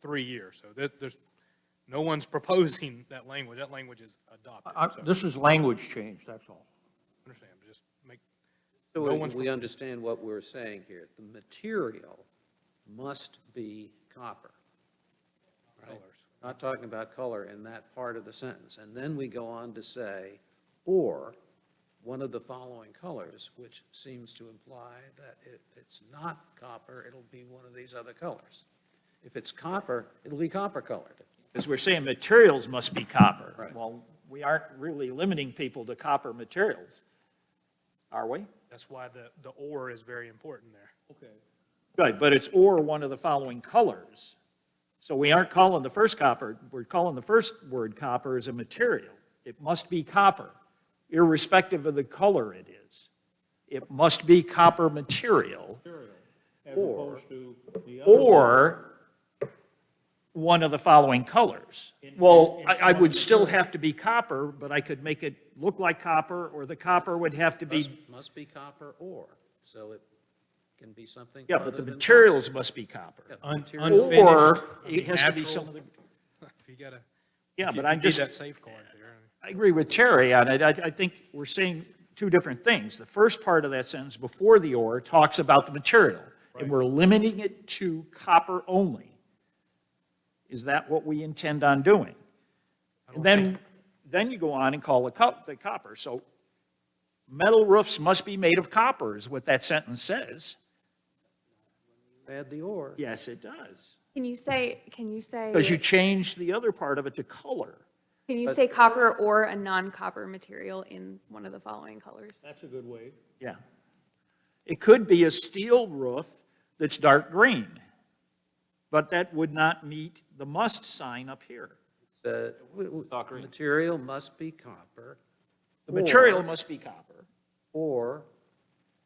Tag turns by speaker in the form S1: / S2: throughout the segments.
S1: three years. So there, there's, no one's proposing that language. That language is adopted.
S2: I-
S1: So,
S2: This is language change, that's all.
S1: understand, but just make,
S3: So
S1: No
S3: we-
S1: one's
S3: we
S1: propo-
S3: understand what we're saying here. The material must be copper. right?
S1: Colors.
S3: Not talking about color in that part of the sentence. And then we go on to say, or one of the following colors, which seems to imply that if it's not copper, it'll be one of these other colors. If it's copper, it'll be copper colored.
S4: Because we're saying materials must be copper.
S3: Right.
S4: Well, we aren't really limiting people to copper materials, are we?
S1: that's why the, the or is very important there. Okay.
S4: Good, but it's or one of the following colors. So we aren't calling the first copper, we're calling the first word copper as a material. It must be copper, irrespective of the color it is. It must be copper material.
S5: as
S4: Or-
S5: opposed to the other.
S4: or one of the following colors. Well, I, I would still have to be copper, but I could make it look like copper, or the copper would have to
S3: Must,
S4: be,
S3: must be copper or, so it can be something
S4: yeah,
S3: other
S4: but the
S3: than-
S4: materials must be
S3: Yeah,
S4: copper.
S3: the material-
S1: Unfinished,
S4: Or
S1: I mean,
S4: it has to be
S1: natural.
S4: some of the,
S1: If you gotta.
S4: yeah,
S1: if you-
S4: but
S1: if you
S4: I'm
S1: need
S4: just,
S1: That safeguard there.
S4: I agree with Terry on it. I, I think we're saying two different things. The first part of that sentence before the or talks about the material, and we're limiting it to copper only. Is that what we intend on doing? And then, then you go on and call the cop, the copper. So metal roofs must be made of copper is what that sentence says.
S3: Add the or.
S4: Yes, it does.
S6: Can you say, can you say,
S4: Because you change the other part of it to color.
S6: can you say copper or a non-copper material in one of the following colors?
S5: That's a good way.
S4: Yeah. It could be a steel roof that's dark green, but that would not meet the must sign up here.
S3: The material must be copper.
S4: The material
S3: or-
S4: must be copper,
S3: Or,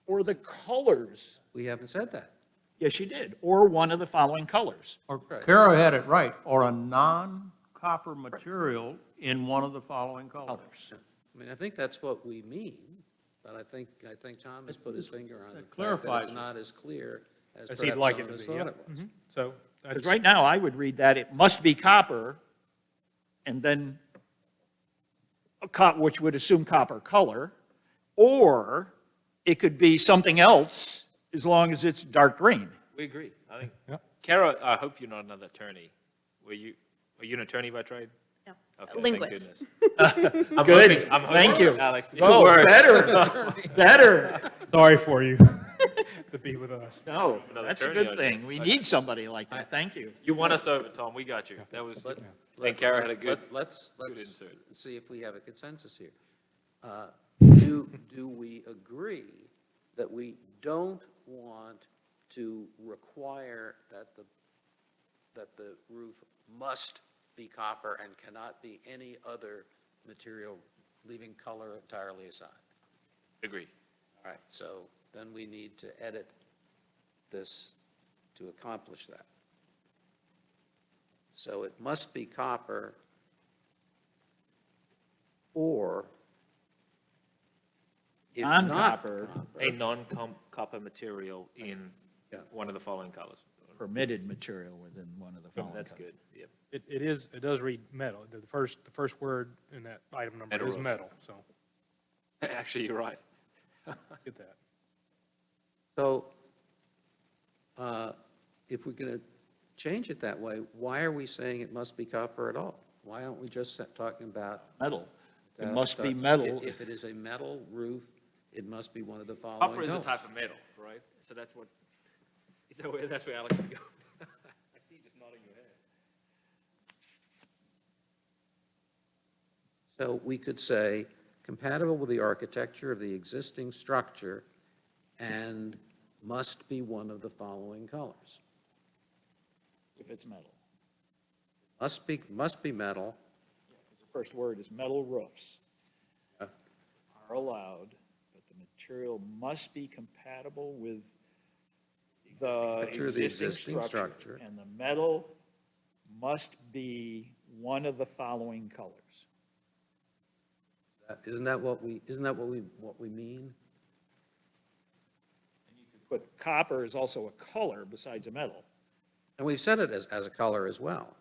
S4: or the colors,
S3: we haven't said that.
S4: yes, you did, or one of the following colors.
S2: Or
S3: Right.
S2: Kara had it right, or a non-copper material in one of the following colors.
S3: I mean, I think that's what we mean, but I think, I think Tom has put his finger on
S2: that
S3: the fact that
S2: clarifies
S3: it's
S2: it.
S3: not as clear as
S1: As he'd
S3: perhaps
S1: like
S3: some
S1: it
S3: of
S1: to
S3: us
S1: be,
S3: thought
S1: yeah.
S3: it was.
S1: So that's
S4: Because right now, I would read that, it must be copper, and then, a co- which would assume copper color, or it could be something else, as long as it's dark green.
S7: We agree. I think,
S1: Yep.
S7: Kara, I hope you're not another attorney. Were you, are you an attorney by trade?
S6: No.
S7: Okay, thank
S6: Linguist.
S7: goodness. I'm hoping- I'm
S4: Thank
S7: hoping,
S4: you.
S7: Alex. it
S4: Oh,
S7: works.
S4: better, better.
S1: Sorry for you to be with us.
S4: No,
S7: Another
S4: that's a
S7: attorney
S4: good
S7: out
S4: thing.
S7: there.
S4: We
S7: Okay.
S4: need somebody like that. Thank you.
S7: You won us over, Tom. We got you. That was,
S3: But-
S7: I think Kara had a
S3: Let's-
S7: good,
S3: let- Let's, let's
S7: insert.
S3: see if we have a consensus here. Uh, Do, do we agree that we don't want to require that the, that the roof must be copper and cannot be any other material, leaving color entirely aside?
S7: agree.
S3: All right, so then we need to edit this to accomplish that. So it must be copper or if not
S4: Non-copper.
S7: A non-copper material in
S3: Yeah.
S7: one of the following colors.
S4: Permitted material within one of the following.
S7: That's
S4: codes.
S7: good. Yep.
S1: It, it is, it does read metal. The first, the first word in that item number
S7: Metal
S1: is
S7: roof.
S1: metal, so
S7: Actually, you're right.
S1: get that.
S3: So uh, if we're going to change it that way, why are we saying it must be copper at all? Why aren't we just talking about?
S4: Metal. It
S3: uh,
S4: must be
S3: if-
S4: metal.
S3: If it is a metal roof, it must be one of the following
S7: Copper is a
S3: colors.
S7: type of metal, right? So that's what, is that where, that's where Alex is going? I see you just nodding your head.
S3: So we could say compatible with the architecture of the existing structure and must be one of the following colors.
S4: If it's metal.
S3: Must be, must be metal,
S4: The First word is metal roofs
S3: Yeah.
S4: are allowed, but the material must be compatible with the
S3: Structure of the
S4: existing
S3: existing
S4: structure.
S3: structure.
S4: And the metal must be one of the following colors.
S3: isn't that what we, isn't that what we, what we mean?
S4: But copper is also a color besides a metal.
S3: And we've said it as, as a color as well.